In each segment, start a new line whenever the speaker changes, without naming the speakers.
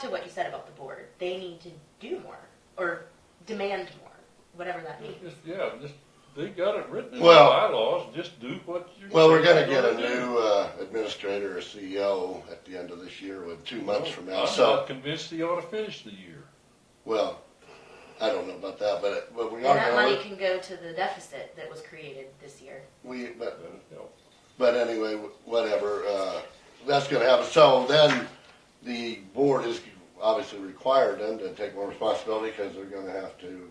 to what you said about the board. They need to do more or demand more, whatever that means.
Mm-hmm.
Just, yeah, just, they got it written in the
Well-
bylaws, just do what you're.
Well, we're
saying
gonna
you're
get a
gonna do.
new uh, administrator or CEO at the end of this year, with two months
Oh,
from now,
I'm
so,
not convinced they ought to finish the year.
well, I don't know about that, but, but we
And
are
that money
gonna,
can go to the deficit that was created this year.
we, but,
That'd help.
but anyway, whatever, uh, that's gonna happen, so then the board is obviously required then to take more responsibility, cause they're gonna have to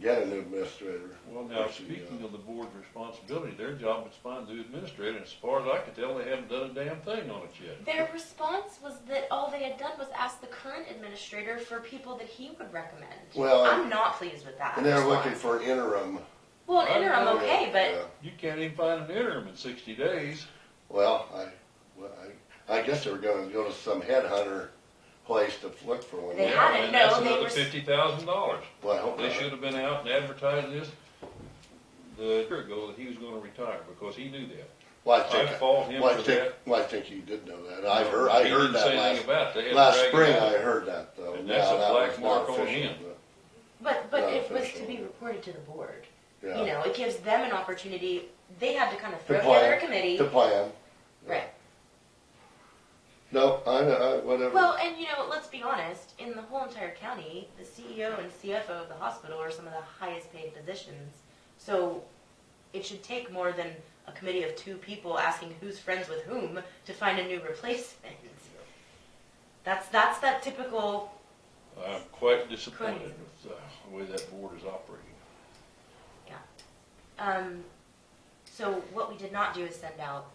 get a new administrator.
Well,
or E
now,
CEO.
speaking of the board's responsibility, their job is to find the administrator, and as far as I can tell, they haven't done a damn thing on it yet.
Their response was that all they had done was ask the current administrator for people that he would recommend.
Well,
I'm not pleased with that.
And they're looking
response.
for an interim.
Well, an interim, okay,
Yeah.
but
You can't even find an interim in sixty days.
Well, I, well, I, I guess they were gonna go to some headhunter place to look for one.
They
Yeah.
had it.
And
no,
that's
they
another
were s-
Fifty thousand dollars.
Well, I hope
They
not.
should have been out and advertising this the year ago that he was gonna retire, because he knew that.
Well, I
I
think,
fault him
well, I
for
think,
that.
well, I think you did know that. I heard, I
He
heard
didn't say
that
anything
last,
about it. They had to
last
drag it
spring,
out.
I heard that though.
And that's a
Now, that
black
was not
mark on
official,
him.
but but
Not
it was to
official.
be reported to the board.
but,
You
yeah.
know, it gives them an opportunity. They had to kind of
To
throw together a
plan.
committee,
To plan.
right?
No, I, know, I, whatever.
Well, and you know, let's be honest. In the whole entire county, the CEO and CFO of the hospital are some of the highest paid positions. So it should take more than a committee of two people asking who's friends with whom to find a new replacement. That's that's that typical.
I'm quite disappointed
Crazy.
with uh, the way that board is operating.
Um, so what we did not do is send out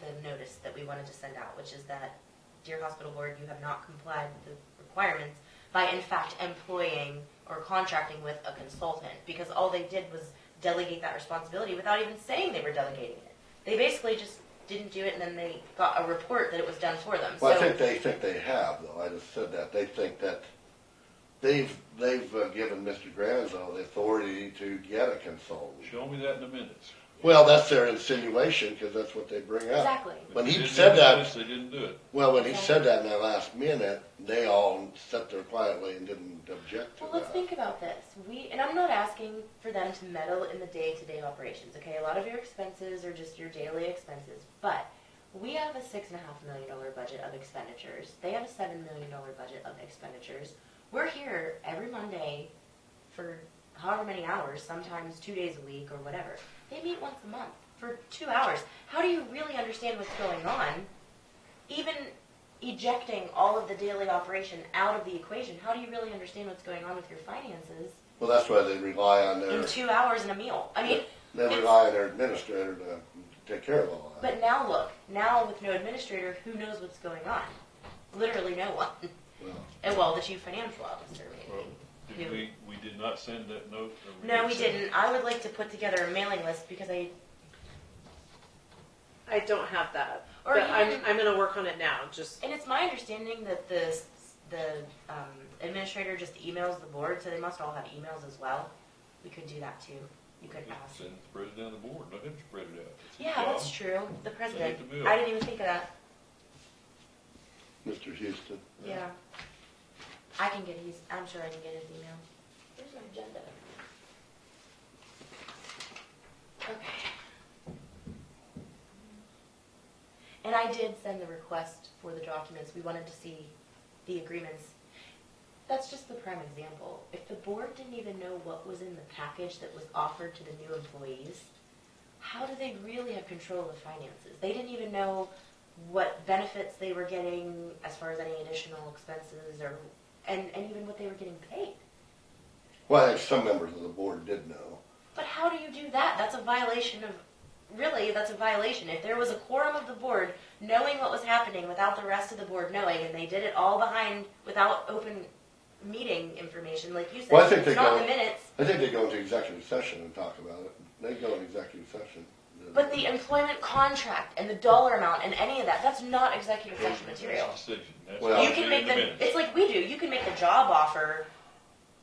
the notice that we wanted to send out, which is that, dear hospital board, you have not complied with the requirements by in fact employing or contracting with a consultant, because all they did was delegate that responsibility without even saying they were delegating it. They basically just didn't do it, and then they got a report that it was done for them.
Well, I
So-
think they think they have, though. I just said that. They think that they've, they've uh, given Mr. Granzo the authority to get a consultant.
Show me that in the minutes.
Well, that's their insinuation, because that's what they bring up.
Exactly.
When
They
he
didn't
said
do
that-
this, They didn't do it.
Well, when he said that in that last minute, they all sat there quietly and didn't object to
Well, let's
that.
think about this. We, and I'm not asking for them to meddle in the day-to-day operations, okay? A lot of your expenses are just your daily expenses, but we have a six and a half million dollar budget of expenditures. They have a seven million dollar budget of expenditures. We're here every Monday for however many hours, sometimes two days a week or whatever. They meet once a month for two hours. How do you really understand what's going on? Even ejecting all of the daily operation out of the equation, how do you really understand what's going on with your finances
Well, that's why they rely on their,
in two hours and a meal? I mean,
they rely on their administrator to take care of all that.
but now look, now with no administrator, who knows what's going on? Literally no one.
Well,
And well, the chief financial officer maybe.
Well, did we, we did not send that note? or
No,
did
we
send it?
didn't. I would like to put together a mailing list because I
I don't have that,
Or
but
you
I'm,
can-
I'm gonna work on it now, just,
And it's my understanding that the the um, administrator just emails the board, so they must all have emails as well. We could do that too. You could ask.
Send the president of the board, let him spread it out. It's his
Yeah, that's
job.
true. The president.
Send it to Bill.
I didn't even think of that.
Mr. Houston,
Yeah. I can get his. I'm sure I can get his email. Where's my agenda? Okay. And I did send the request for the documents. We wanted to see the agreements. That's just the prime example. If the board didn't even know what was in the package that was offered to the new employees, how do they really have control of finances? They didn't even know what benefits they were getting as far as any additional expenses or, and, and even what they were getting paid.
well, I think some members of the board did know.
But how do you do that? That's a violation of, really, that's a violation. If there was a quorum of the board knowing what was happening without the rest of the board knowing, and they did it all behind, without open meeting information, like you said,
Well, I think they
it's not in
go-
the minutes.
I think they go into executive session and talk about it. They go into executive session.
But the employment contract and the dollar amount and any of that, that's not executive session material.
That's his decision. That's
Well-
what
You
we
can
did
make
in
them,
minutes.
it's like we do, you can make a job offer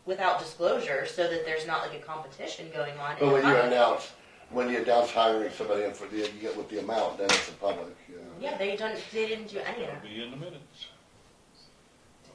without disclosure so that there's not like a competition going on. in
But when
the
you
company.
announce, when you announce hiring somebody in for the, you get with the amount, then it's a public, you know.
Yeah, they don't, they didn't do any of
It'll
that.
be in the minutes.